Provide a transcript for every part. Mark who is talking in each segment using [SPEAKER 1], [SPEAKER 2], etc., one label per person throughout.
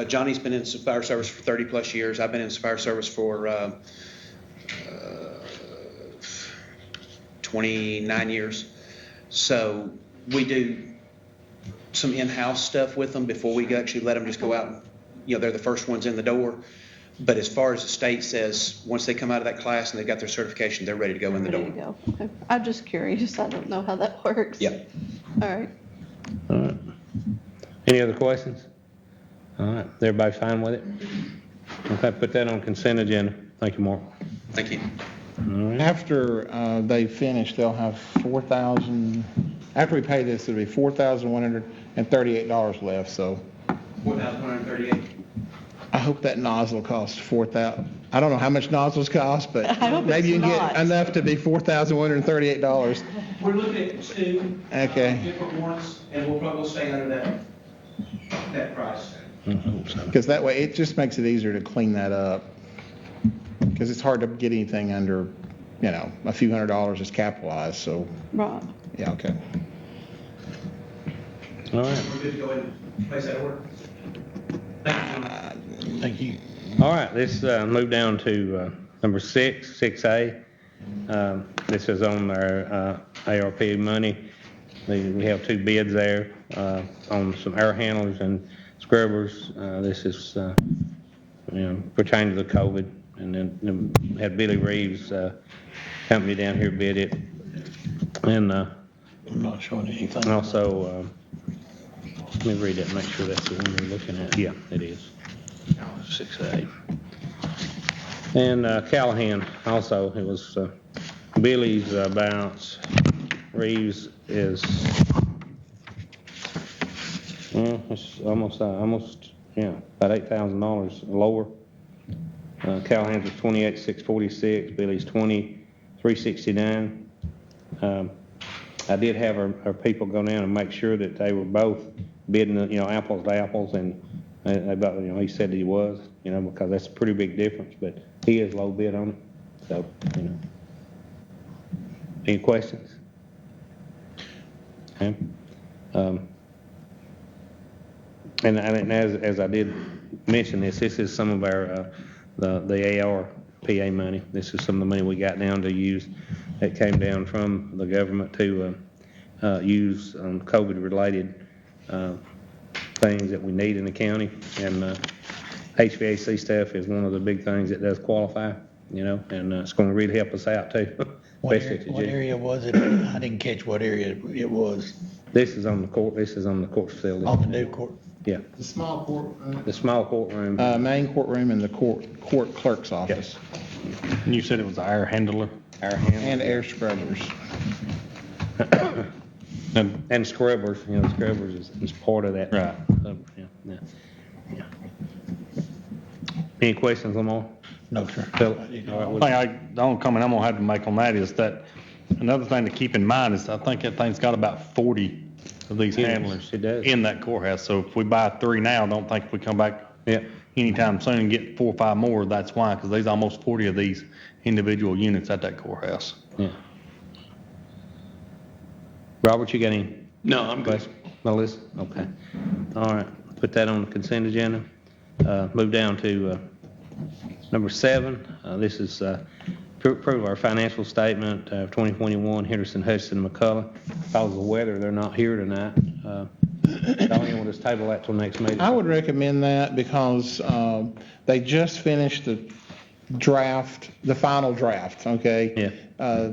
[SPEAKER 1] Uh, Johnny's been in fire service for 30-plus years. I've been in fire service for um, uh, 29 years. So we do some in-house stuff with them before we actually let them just go out. and You know, they're the first ones in the door. But as far as the state says, once they come out of that class and they've got their certification, they're ready to go in the
[SPEAKER 2] Ready to
[SPEAKER 1] door.
[SPEAKER 2] go. Okay. I'm just curious. I don't know how that works.
[SPEAKER 1] Yeah.
[SPEAKER 2] All right.
[SPEAKER 3] All right. Any other questions? All right, everybody fine with it? Okay, put that on consent agenda. Thank you, Mark.
[SPEAKER 1] Thank you.
[SPEAKER 4] After uh, they finish, they'll have 4,000, after we pay this, it'll be $4,138 left, so
[SPEAKER 1] 4,138.
[SPEAKER 4] I hope that nozzle costs 4,000, I don't know how much nozzles cost, but
[SPEAKER 2] I hope
[SPEAKER 4] maybe you
[SPEAKER 2] it's
[SPEAKER 4] can
[SPEAKER 2] not.
[SPEAKER 4] get enough to be $4,138.
[SPEAKER 1] We're looking at two. uh,
[SPEAKER 4] Okay.
[SPEAKER 1] Different warrants, and we'll probably stay under that, that price.
[SPEAKER 4] Because that way, it just makes it easier to clean that up. Because it's hard to get anything under, you know, a few hundred dollars is capitalized, so,
[SPEAKER 2] Right.
[SPEAKER 4] yeah, okay.
[SPEAKER 3] All right,
[SPEAKER 1] We're good to go ahead and place that order. Thank you. John.
[SPEAKER 4] Thank you.
[SPEAKER 3] all right, let's uh, move down to uh, number six, 6A. Um, This is on our uh, ARP money. The- We have two bids there uh, on some air handlers and scrubbers. Uh, This is uh, you know, pertaining to the COVID. And then- then had Billy Reeves uh, company down here bid it. And uh,
[SPEAKER 5] I'm not showing anything.
[SPEAKER 3] And also, um, let me read it, and make sure that's the one we're looking at. Yeah, it is.
[SPEAKER 5] Six A.
[SPEAKER 3] And uh, Callahan also, it was uh, Billy's uh, bounce, Reeves is, well, it's almost, uh, almost, yeah, about eight thousand dollars lower. Uh, Callahan's was twenty-eight, six forty-six, Billy's twenty, three sixty-nine. Um, I did have our, our people go down and make sure that they were both bidding, you know, apples to apples, and they- they both, you know, he said he was, you know, because that's a pretty big difference, but he is low bid on it, so, you know. Any questions? Okay. Um, And, I- and as, as I did mention this, this is some of our, uh, the, the ARPA money. This is some of the money we got down to use, that came down from the government to, uh, uh, use on COVID-related, uh, things that we need in the county. And, uh, HVAC stuff is one of the big things that does qualify, you know, and uh, it's gonna really help us out too.
[SPEAKER 5] What
[SPEAKER 3] especially at
[SPEAKER 5] area,
[SPEAKER 3] the
[SPEAKER 5] what
[SPEAKER 3] jail.
[SPEAKER 5] area was it? I didn't catch what area it was.
[SPEAKER 3] This is on the court, this is on the court facility.
[SPEAKER 5] On the new court,
[SPEAKER 3] Yeah,
[SPEAKER 6] The small courtroom,
[SPEAKER 3] the small courtroom.
[SPEAKER 4] Uh, Main courtroom and the court court clerk's office.
[SPEAKER 7] You said it was the air handler
[SPEAKER 3] Our hand-
[SPEAKER 4] And air scrubbers.
[SPEAKER 7] and
[SPEAKER 3] And scrubbers, you know, scrubbers is, is part of that.
[SPEAKER 7] Right.
[SPEAKER 3] Uh, yeah, yeah, yeah. Any questions, Lamar?
[SPEAKER 5] no, sir.
[SPEAKER 3] Phil? All right,
[SPEAKER 7] I
[SPEAKER 3] we'll-
[SPEAKER 7] think I, the only comment I'm gonna have to make on that is that another thing to keep in mind is I think that thing's got about forty of these
[SPEAKER 3] Yes,
[SPEAKER 7] handlers
[SPEAKER 3] it does.
[SPEAKER 7] in that courthouse. So if we buy three now, don't think if we come back
[SPEAKER 3] Yeah.
[SPEAKER 7] anytime soon and get four or five more, that's why, because there's almost forty of these individual units at that courthouse.
[SPEAKER 3] Yeah. Robert, you got any? No, I'm good. Melissa, okay. All right, put that on the consent agenda. Uh, Move down to uh, number seven. Uh, This is uh, to approve our financial statement uh, of 2021 Henderson Hudson McCullough. Because of the weather, they're not here tonight. Uh, Diane, we'll just table that till next meeting.
[SPEAKER 4] I would recommend that because um, they just finished the draft, the final draft, okay?
[SPEAKER 3] Yeah.
[SPEAKER 4] Uh,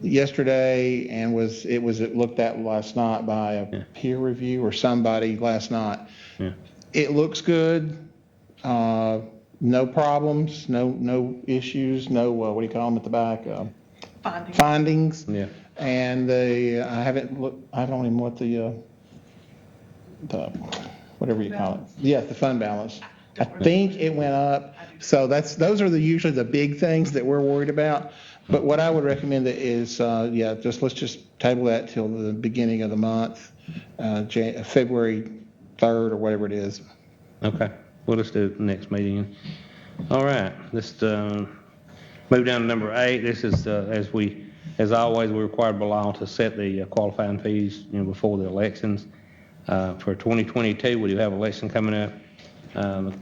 [SPEAKER 4] Yesterday, and was, it was looked at last night by a peer review or somebody last night.
[SPEAKER 3] Yeah.
[SPEAKER 4] It looks good, uh, no problems, no, no issues, no, uh, what do you call them at the back? uh, Findings.
[SPEAKER 3] Yeah.
[SPEAKER 4] And the, I haven't looked, I don't even what the, uh, the, whatever you call it. Yeah, the fund balance. I think it went up. So that's, those are the, usually the big things that we're worried about. But what I would recommend is, uh, yeah, just, let's just table that till the beginning of the month, uh, Jan, February 3rd or whatever it is.
[SPEAKER 3] Okay, well, let's do it next meeting. All right, let's uh, move down to number eight. This is, uh, as we, as always, we're required by law to set the uh, qualifying fees, you know, before the elections. Uh, For 2022, we do have election coming up. Um,